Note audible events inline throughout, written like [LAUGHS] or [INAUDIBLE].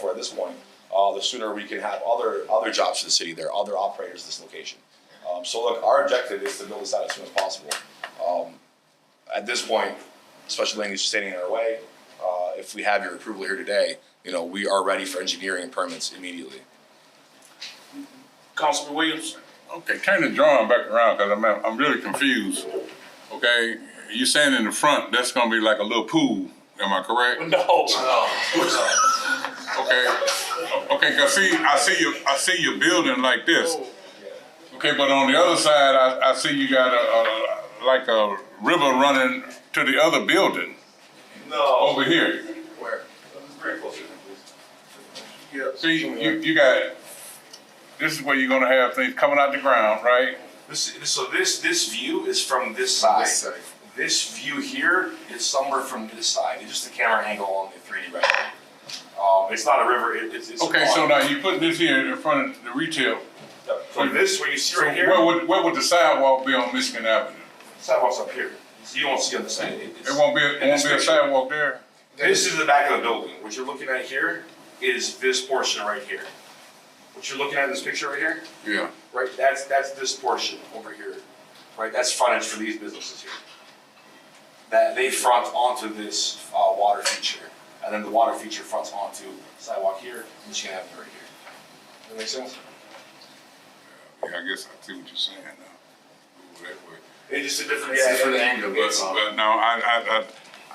for at this point, uh, the sooner we can have other, other jobs for the city there, other operators at this location. Um, so look, our objective is to build this out as soon as possible. Um, at this point, special land use is standing in our way. Uh, if we have your approval here today, you know, we are ready for engineering and permits immediately. Councilman Williams. Okay, turn the drawing back around, cause I'm, I'm really confused, okay? You saying in the front, that's gonna be like a little pool, am I correct? No. Okay, okay, cause see, I see you, I see you building like this. Okay, but on the other side, I, I see you got a, a, like a river running to the other building No. over here. Where? See, you, you got, this is where you're gonna have things coming out the ground, right? This, so this, this view is from this side. This view here is somewhere from this side. It's just the camera angle on the three D right here. Um, it's not a river, it, it's, it's. a Okay, so pond. now you put this here in front of the retail. Yep. From this, where you see So right here, where would, where would the sidewalk be on Michigan Avenue? sidewalk's up here. So you won't see on the side. It- it's- It won't be, it in this won't be a picture. sidewalk there? This is the back of the building. What you're looking at here is this portion right here. What you're looking at in this picture right here, Yeah. right, that's, that's this portion over here. Right, that's frontage for these businesses here. That they front onto this, uh, water feature, and then the water feature fronts onto sidewalk here, Michigan Avenue right here. That make sense? Yeah, I guess I see what you're saying now. Over that way. It's just a different. It's a different angle, But, that's all. but now, I, I,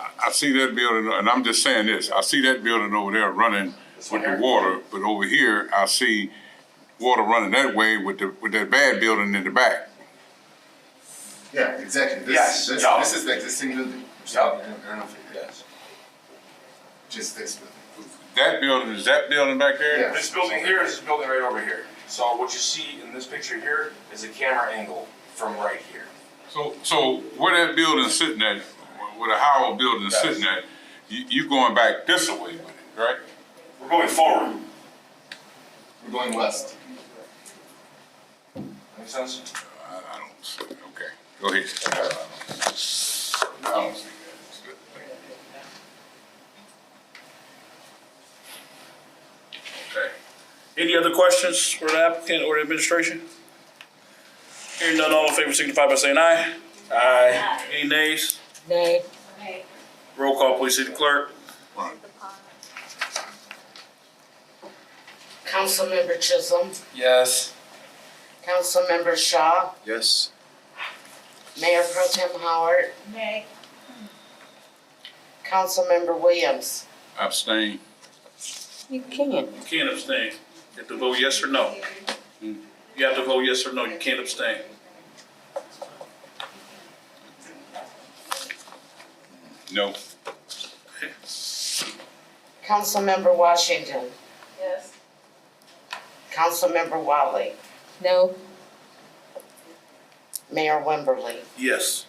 I, I see that building, and I'm just saying this, I see that building over there running This one with the here? water, but over here, I see water running that way with the, with that bad building in the back. Yeah, exactly. This, Yes, this, yeah. this is the existing building. Yeah. I don't- I don't know if it- Yes. Just this building. That building, is that building back there? Yeah. This building here is this building right over here. So what you see in this picture here is a camera angle from right here. So, so where that building sitting at, where the Howard building Yes. sitting at, you, you going back this way with it, right? We're going forward. We're going west. Make sense? I, I don't see, it. okay, go ahead. I don't see that. Okay. Any other questions for the applicant or the administration? Hearing none, all in favor signify by saying aye. Aye. Any nays? Nay. Roll call, please, city clerk. Councilmember Chisholm, Yes. Councilmember Shaw, Yes. Mayor Pro Tem Howard, Nay. Councilmember Williams. Abstain. You can't. You can't abstain. You have to vote yes or no. You have to vote yes or no, you can't abstain. No. Councilmember Washington, Yes. Councilmember Wiley, No. Mayor Wimberly. Yes.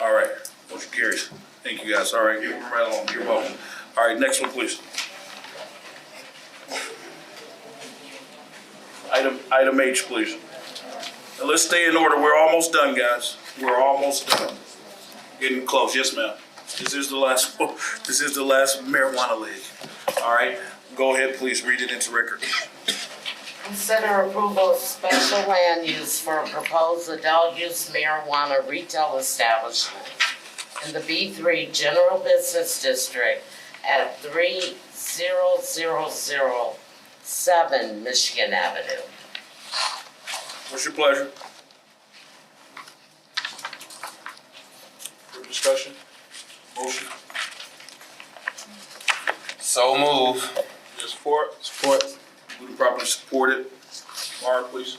All right, motion carries. Thank you, guys. All right, you're right along, you're welcome. All right, next one, please. Item, item H, please. And let's stay in order. We're almost done, guys. We're almost done. Getting close. Yes, ma'am. This is the last, [LAUGHS] this is the last marijuana league. All right, go ahead, please. Read it into record. Consider approval of special land use for a proposed adult-use marijuana retail establishment in the B three General Business District at three zero zero zero seven Michigan Avenue. What's your pleasure? For discussion? Motion? So move. Your support? Support. Moved and properly supported. Mara, please.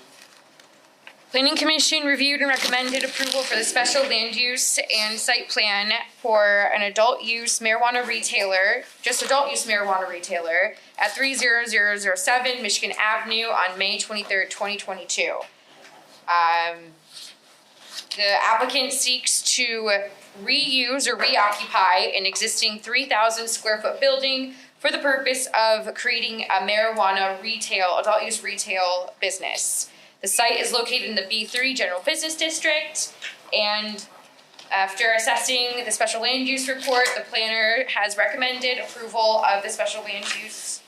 Planning Commission reviewed and recommended approval for the special land use and site plan for an adult use marijuana retailer, just adult use marijuana retailer at three zero zero zero seven Michigan Avenue on May twenty-third, twenty twenty-two. Um, the applicant seeks to reuse or reoccupy an existing three thousand square foot building for the purpose of creating a marijuana retail, adult use retail business. The site is located in the B three general business district and after assessing the special land use report, the planner has recommended approval of the special land use